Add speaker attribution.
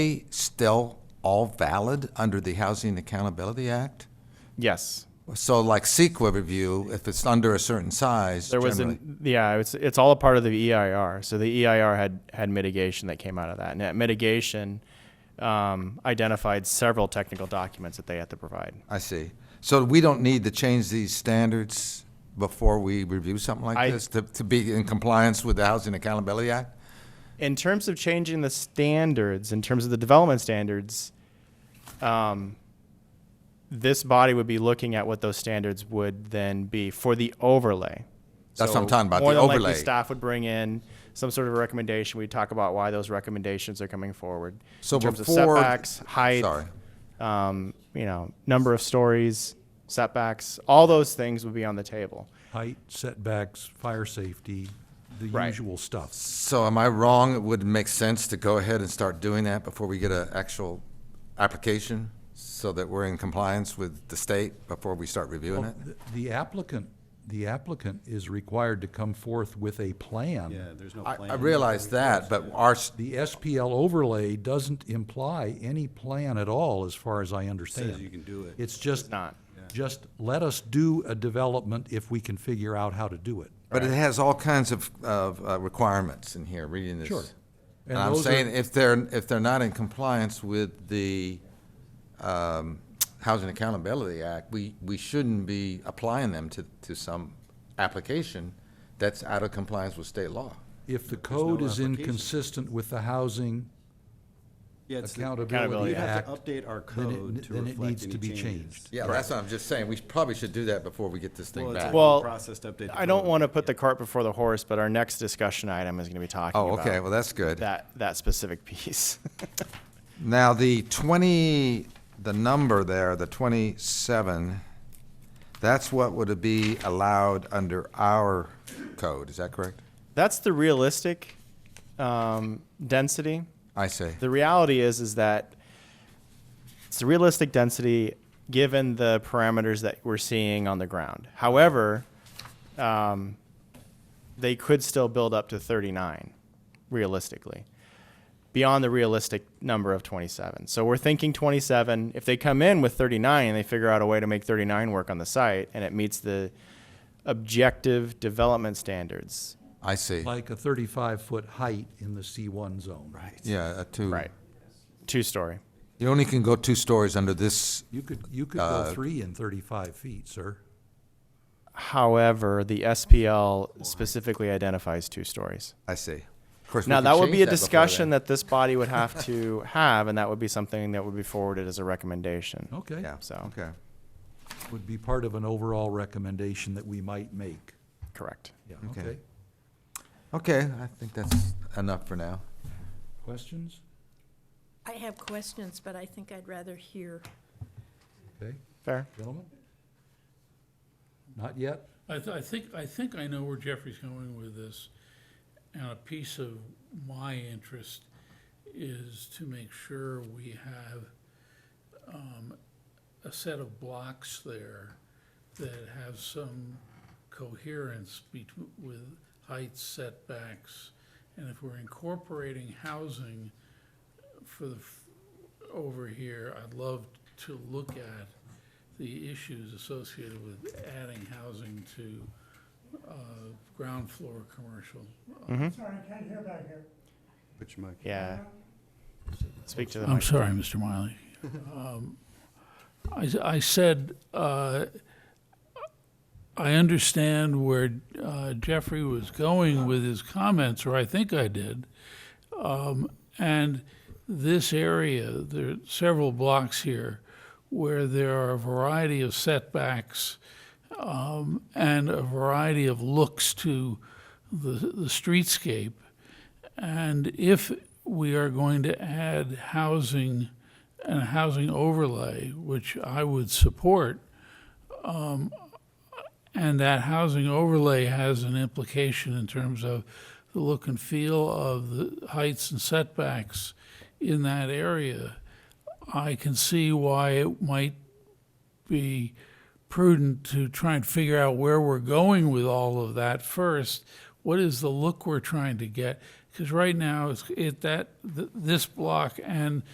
Speaker 1: they still all valid under the Housing Accountability Act?
Speaker 2: Yes.
Speaker 1: So like CEQA review, if it's under a certain size,
Speaker 2: There was
Speaker 1: generally.
Speaker 2: an, yeah, it's, it's all a part of the EIR. So the EIR had, had mitigation that came out of that. And that mitigation um, identified several technical documents that they had to provide.
Speaker 1: I see. So we don't need to change these standards before we review something like
Speaker 2: I-
Speaker 1: this to, to be in compliance with the Housing Accountability Act?
Speaker 2: In terms of changing the standards, in terms of the development standards, um, this body would be looking at what those standards would then be for the overlay.
Speaker 1: That's what I'm talking about,
Speaker 2: More
Speaker 1: the
Speaker 2: than likely,
Speaker 1: overlay.
Speaker 2: staff would bring in some sort of recommendation. We talk about why those recommendations are coming forward.
Speaker 1: So
Speaker 2: in terms
Speaker 1: before-
Speaker 2: of setbacks, height,
Speaker 1: Sorry.
Speaker 2: um, you know, number of stories, setbacks, all those things would be on the table.
Speaker 3: height, setbacks, fire safety, the
Speaker 2: Right.
Speaker 3: usual stuff.
Speaker 1: So am I wrong? It would make sense to go ahead and start doing that before we get an actual application? So that we're in compliance with the state before we start reviewing it?
Speaker 3: The- The applicant, the applicant is required to come forth with a plan.
Speaker 4: Yeah, there's no
Speaker 1: I,
Speaker 4: plan.
Speaker 1: I realize that, but our, s-
Speaker 3: The SPL overlay doesn't imply any plan at all, as far as I understand.
Speaker 4: Says you can do it.
Speaker 3: It's just.
Speaker 2: not.
Speaker 3: Just let us do a development if we can figure out how to do it.
Speaker 1: but it has all kinds of, of uh, requirements in here, reading this.
Speaker 3: Sure.
Speaker 1: And
Speaker 3: And
Speaker 1: I'm
Speaker 3: those are-
Speaker 1: saying if they're, if they're not in compliance with the, um, Housing Accountability Act, we, we shouldn't be applying them to, to some application that's out of compliance with state law.
Speaker 3: If the code is
Speaker 4: application.
Speaker 3: inconsistent with the Housing
Speaker 4: Yeah, it's the-
Speaker 3: Accountability
Speaker 4: We'd have
Speaker 3: Act.
Speaker 4: to update our
Speaker 3: then it-
Speaker 4: code to
Speaker 3: then it
Speaker 4: reflect
Speaker 3: needs to
Speaker 4: any
Speaker 3: be
Speaker 4: changes.
Speaker 3: changed.
Speaker 1: Yeah, that's what I'm just saying. We probably should do that before we get this
Speaker 4: Well,
Speaker 1: thing
Speaker 4: it's a
Speaker 1: back.
Speaker 2: Well,
Speaker 4: process to update the
Speaker 2: I don't
Speaker 4: code.
Speaker 2: want to put the cart before the horse, but our next discussion item is going to be talking
Speaker 1: Oh, okay,
Speaker 2: about
Speaker 1: well, that's good.
Speaker 2: that that specific piece.
Speaker 1: Now, the 20, the number there, the 27, that's what would be allowed under our code, is that correct?
Speaker 2: That's the realistic um, density.
Speaker 1: I see.
Speaker 2: The reality is is that it's the realistic density given the parameters that we're seeing on the ground. However, um, they could still build up to 39 realistically beyond the realistic number of 27. So we're thinking 27. If they come in with 39 and they figure out a way to make 39 work on the site and it meets the objective development standards,
Speaker 1: I see.
Speaker 3: like a thirty-five foot height in the C one zone. Right.
Speaker 1: Yeah, a two.
Speaker 2: right? Two story.
Speaker 1: You only can go two stories under this,
Speaker 3: You could, you could
Speaker 1: Uh,
Speaker 3: go three and thirty-five feet, sir.
Speaker 2: However, the SPL specifically identifies two stories.
Speaker 1: I see. Of course, we
Speaker 2: Now,
Speaker 1: could
Speaker 2: that would
Speaker 1: change
Speaker 2: be a
Speaker 1: before
Speaker 2: discussion
Speaker 1: then.
Speaker 2: that this body would have to have, and that would be something that would be forwarded as a recommendation.
Speaker 3: Okay.
Speaker 1: Yeah,
Speaker 2: so.
Speaker 1: okay.
Speaker 3: Would be part of an overall recommendation that we might make.
Speaker 2: Correct.
Speaker 3: Yeah,
Speaker 1: Okay.
Speaker 3: okay.
Speaker 1: Okay, I think that's enough for now.
Speaker 3: Questions?
Speaker 5: I have questions, but I think I'd rather hear.
Speaker 3: Okay,
Speaker 2: Fair.
Speaker 3: gentlemen? Not yet?
Speaker 6: I, th- I think, I think I know where Jeffrey's going with this. And a piece of my interest is to make sure we have, um, a set of blocks there that have some coherence betw- with heights, setbacks. And if we're incorporating housing for the, f- over here, I'd love to look at the issues associated with adding housing to uh, ground floor commercial.
Speaker 7: Sorry, I can't hear back here.
Speaker 4: Put your mic-
Speaker 2: Yeah. Speak to the
Speaker 6: I'm
Speaker 2: mic.
Speaker 6: sorry, Mr. Miley. Um, I, s- I said, uh, I understand where uh, Jeffrey was going with his comments, or I think I did. Um, and this area, there are several blocks here where there are a variety of setbacks um, and a variety of looks to the, the streetscape. And if we are going to add housing and a housing overlay, which I would support, um, and that housing overlay has an implication in terms of the look and feel of the heights and setbacks in that area, I can see why it might be prudent to try and figure out where we're going with all of that first. What is the look we're trying to get? Because right now, it's it that th- this block and